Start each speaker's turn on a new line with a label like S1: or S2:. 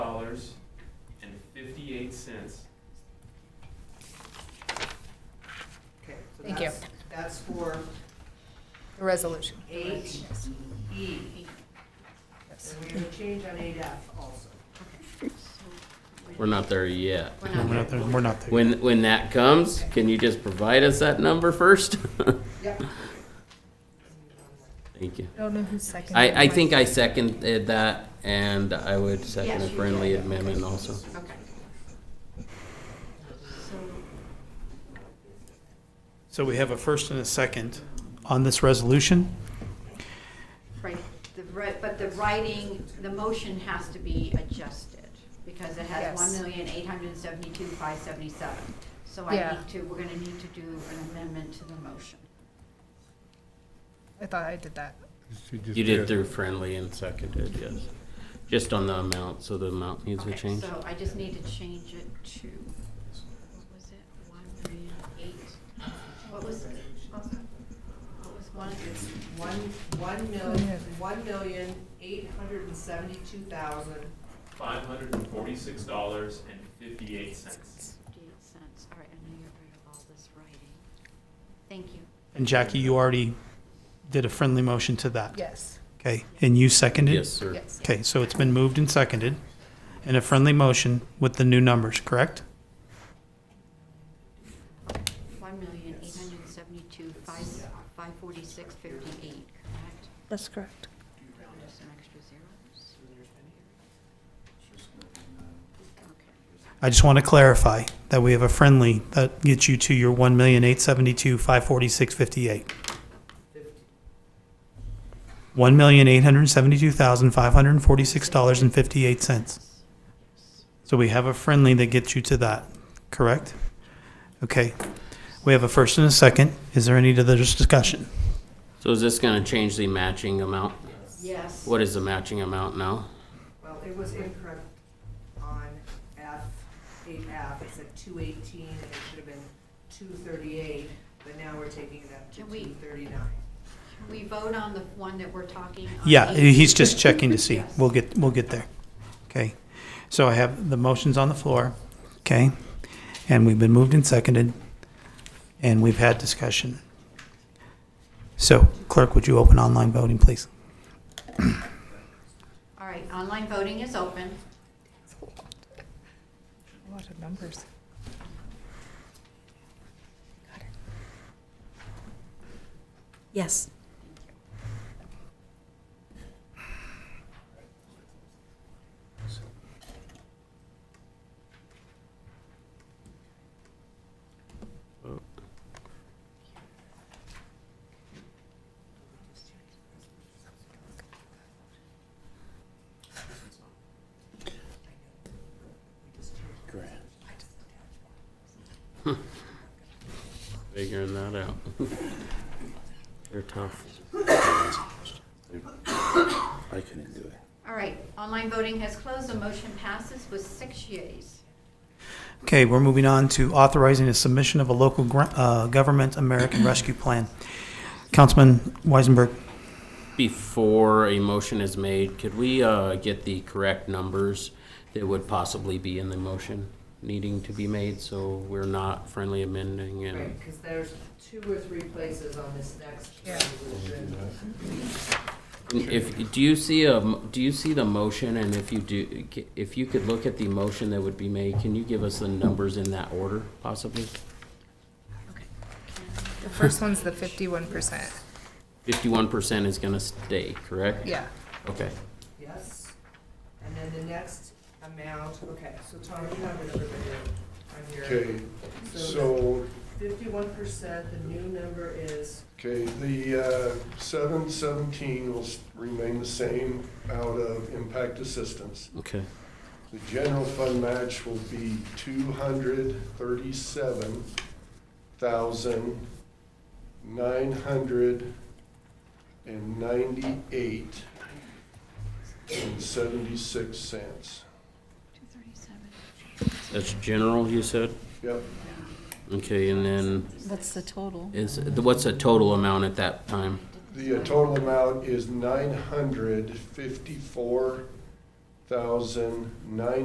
S1: cents.
S2: Okay, so
S3: Thank you.
S2: that's, that's for
S3: The resolution.
S2: eight E. And we have a change on eight F also.
S4: We're not there yet.
S5: We're not
S6: We're not
S5: there.
S6: there, we're not there.
S4: When, when that comes, can you just provide us that number first?
S2: Yep.
S4: Thank you.
S3: I don't know who's second.
S4: I, I think I seconded that and I would second a
S5: Yes, you
S4: friendly
S5: did.
S4: amendment also.
S5: Okay. So,
S6: So we have a first and a second on this resolution.
S5: right, the, ri- but the writing, the motion has to be adjusted, because it has
S3: Yes.
S5: one million, eight hundred and seventy-two, five seventy-seven. So I
S3: Yeah.
S5: need to, we're gonna need to do an amendment to the motion.
S3: I thought I did that.
S4: You did through friendly and seconded, yes. Just on the amount, so the amount needs to
S5: Okay,
S4: change.
S5: So I just need to change it to, what was it, one million, eight, what was, it? what was one of
S2: It's
S5: the-
S2: one, one mil, one million, eight hundred and seventy-two thousand,
S1: Five hundred and forty-six dollars and fifty-eight cents.
S5: Fifty-eight cents, all right, I know you're rid of all this writing. Thank you.
S6: And Jackie, you already did a friendly motion to that.
S3: Yes,
S6: Okay, and you seconded?
S4: Yes, sir.
S3: yes.
S6: Okay, so it's been moved and seconded in a friendly motion with the new numbers, correct?
S5: One million, eight hundred and seventy-two, five, five forty-six, fifty-eight, correct?
S7: That's correct.
S5: There's some extra zeros? Okay,
S6: I just want to clarify that we have a friendly that gets you to your one million eight seventy-two, five forty-six, fifty-eight. One million eight hundred seventy-two thousand, five hundred and forty-six dollars and fifty-eight cents. So we have a friendly that gets you to that, correct? Okay. We have a first and a second. Is there any other discussion?
S4: So is this gonna change the matching amount?
S5: yes.
S4: What is the matching amount now?
S2: well, it was incorrect on F, eight F, it said two eighteen, and it should have been two thirty-eight, but now we're taking it up to
S5: Can we-
S2: two thirty-nine.
S5: Can We vote on the one that we're talking on?
S6: Yeah,
S5: eight?
S6: he's just checking to see.
S5: Yes.
S6: We'll get, we'll get there. Okay. So I have the motions on the floor, okay? And we've been moved and seconded, and we've had discussion. So clerk, would you open online voting, please?
S5: All right, online voting is open.
S3: A lot of numbers.
S7: Yes.
S4: Figuring that out. They're tough.
S8: I couldn't do it.
S5: All right, online voting has closed, the motion passes with six yeas.
S6: Okay, we're moving on to authorizing a submission of a local gr- uh, government American Rescue Plan. Councilman Weisenberg,
S4: Before a motion is made, could we uh, get the correct numbers that would possibly be in the motion needing to be made, so we're not friendly amending
S2: Right,
S4: and
S2: because there's two or three places on this next
S3: Yeah.
S2: resolution.
S4: if, do you see a, m- do you see the motion, and if you do, if you could look at the motion that would be made, can you give us the numbers in that order possibly?
S5: Okay.
S3: The first one's the fifty-one percent.
S4: Fifty-one percent is gonna stay, correct?
S3: Yeah,
S4: Okay,
S2: Yes. And then the next amount, okay, so Tom, you have another video on here.
S9: Okay, so,
S2: Fifty-one percent, the new number is,
S9: okay, the uh, seven seventeen will s- remain the same out of impact assistance.
S4: okay.
S9: The general fund match will be two hundred thirty-seven thousand nine hundred and ninety-eight and seventy-six cents.
S5: Two thirty-seven.
S4: That's general, you said?
S9: Yep,
S4: Okay, and then
S7: That's the total.
S4: is, what's the total amount at that time?
S9: the uh, total amount is nine hundred fifty-four thousand nine